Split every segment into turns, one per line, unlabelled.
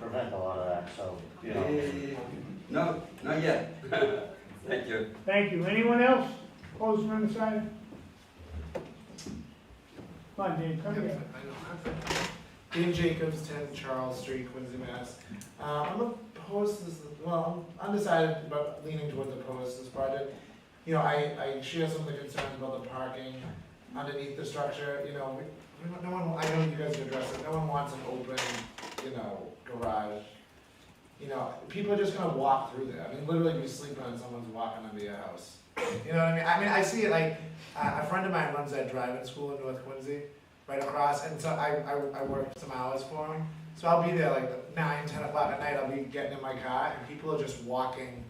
prevent a lot of that, so, you
Yeah, yeah,
know.
yeah, yeah. No, not yet. Thank you.
Thank you. Anyone else? Close from the side? Come on, Dave, come
Yep,
here.
I don't have it. Dave Jacobs, ten Charles Street, Quincy, Mass. Uh, I'm opposed to this, well, I'm undecided, but leaning toward the opposed to this project. You know, I, I share some of the concerns about the parking underneath the structure, you know, we, we don't- no one, I know you guys addressed it, no one wants an open, you know, garage. You know, people are just gonna walk through there, I mean, literally, you sleep on someone's walking under your house. You know what I mean, I mean, I see it like, uh, a a friend of mine runs that driving school in North Quincy, right across, and so I, I, I work some hours for him. So I'll be there like nine, ten o'clock at night, I'll be getting in my car, and people are just walking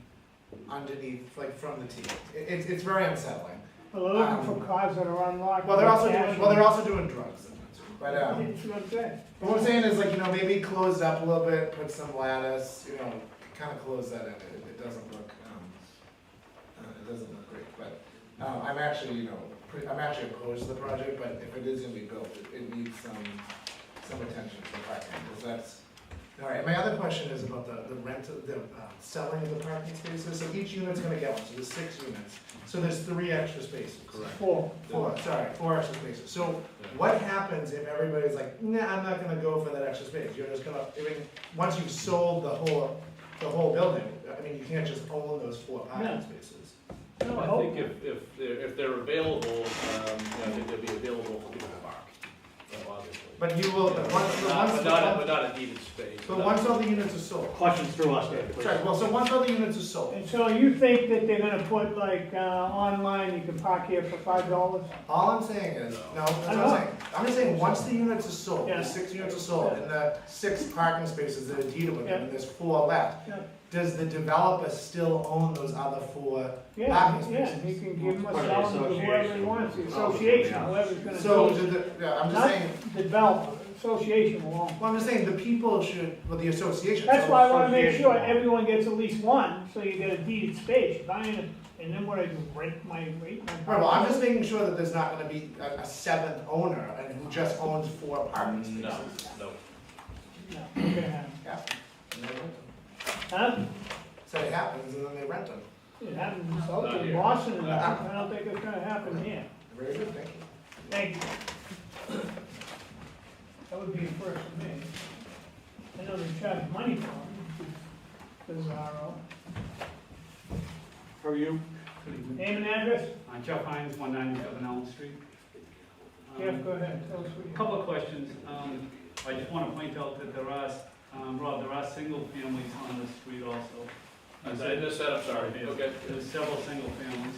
underneath, like from the tee. It, it's, it's very unsettling.
Well, they're looking for cars that are unlocked.
Well, they're also doing, well, they're also doing drugs sometimes, but, um,
That's what I'm saying.
but what I'm saying is like, you know, maybe close it up a little bit, put some lattice, you know, kinda close that in, it, it doesn't look, um, uh, it doesn't look great, but, um, I'm actually, you know, pretty, I'm actually opposed to the project, but if it is gonna be built, it, it needs some, some attention for parking, cause that's. Alright, my other question is about the, the rent, of the, uh, selling of the parking spaces, so each unit's gonna get one, so there's six units, so there's three extra spaces. Correct.
Four.
Four, sorry, four extra spaces. So what happens if everybody's like, nah, I'm not gonna go for that extra space? You're just gonna, I mean, once you've sold the whole, the whole building, I mean, you can't just own those four
No.
parking spaces.
No, I think if, if they're, if they're available, um, you know, I think they'll be available for people to park, you know, obviously.
But you will, but once, but
Not-
once,
But not, but not a needed space.
but once all the units are sold.
Questions through us, Dave, please.
Sorry, well, so once all the units are sold,
And so you think that they're gonna put like, uh, online, you can park here for five dollars?
all I'm saying is, no, that's what
I know.
I'm saying. I'm just saying, once the units are sold,
Yeah.
the six units are sold, and the six parking spaces that are deeded with them, and there's four left,
Yeah.
does the developer still own those other four
Yeah,
Parking
yeah,
spaces.
he can give them a
Part of the
sell them to whoever he
association.
wants, the
Oh,
association,
yeah.
whoever's gonna.
So,
do it.
did the, yeah, I'm just saying,
Not develop, association will own.
well, I'm just saying the people should, well, the association.
That's
so-
why I wanna make
Association
sure
will own.
everyone gets at least one, so you get a deeded space, If I ain't- and then what I do, rent my, rent my.
Right, well, I'm just making sure that there's not gonna be a, a seventh owner and who just owns four apartment spaces.
No, no.
No, we're gonna have-
Yeah, and they rent them.
Huh?
So it happens and then they rent them.
It happened in South
Not
in
here.
Boston, and
Not
I don't think it's gonna happen here.
Very good, thank you.
Thank you. That would be a first for me. I know they charge money for them. Bizarro.
How are you?
Name and address?
I'm Jeff Hines, one ninety-seven Elm Street. Um,
Jeff, go ahead, tell us what
A
you.
Couple of questions. Um, I just want to point out that there are, um, Rob, there are single families on this street also.
I did this, I'm sorry, okay.
There's several single families,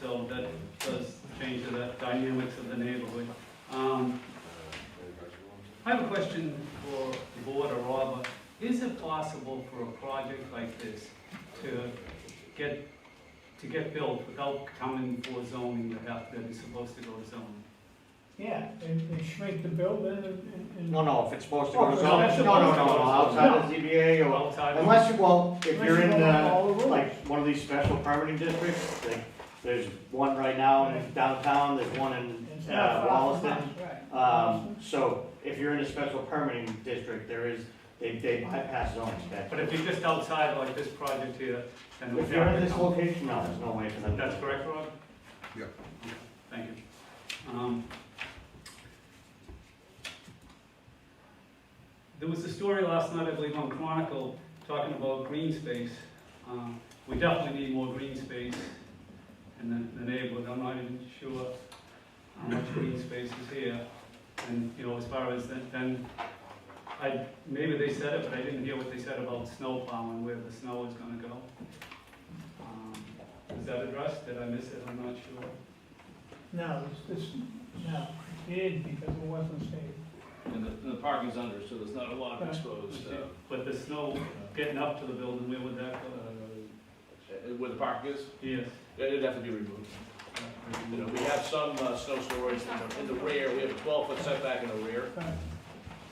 so that does change the dynamics of the neighborhood. Um, I have a question for the board or Robert. Is it possible for a project like this to get, to get built without coming for zoning that have, that is supposed to go to zoning?
Yeah, they, they shrink the building and, and- and.
No, no, if it's supposed to
Oh,
go to
no,
zoning,
that's
no, no, no,
supposed
no,
to-
outside of ZBA or,
Outside of-
unless, you well, if
Unless
you're
you
in
don't have all the
the,
rules.
like, one of these special permitting districts, like, there's one right now in downtown, there's one
It's
in,
not
uh,
far from
Wallaston.
us, right.
Um, so if you're in a special permitting district, there is, they, they bypass zoning. that-
But if you're just outside like this project here, then. we
If you're in
have to
this
come-
location, no, there's no way for them.
That's correct, Rob?
Yeah.
Okay, Thank you. Um, There was a story last night, I believe, on Chronicle, talking about green space. Um, We definitely need more green space in the- the neighborhood. I'm not even sure how much green space is here. And, you know, as far as then- then, I, maybe they said it, but I didn't hear what they said about snow plowing, where the snow is gonna go. Um, is that addressed? Did I miss it? I'm not sure.
No, it's just, no, it is because it wasn't safe.
And the, and the parking's under, so there's not a lot
Right.
exposed, uh,
But the snow getting up to the building, where would that
uh,
go?
uh, where the park is,
Yes.
it'd have to be removed. You know, we have some, uh, snow storage in the, in the rear, we have a twelve foot setback in the rear.
Right.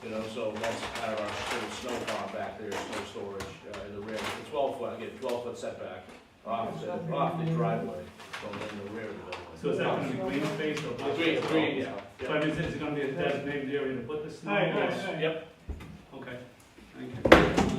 You know, so that's kind of our sort of snow farm back there, snow storage, uh, in the rear, the twelve foot, again, twelve foot setback off, the- off the driveway, so in the rear of the building.
So is that gonna be green space or?
Uh,
black
Green,
space?
green, yeah.
So I mean, is it gonna be a designated area to put the snow?
Right, right,
Yes.
right.
Yep,
Okay, thank you.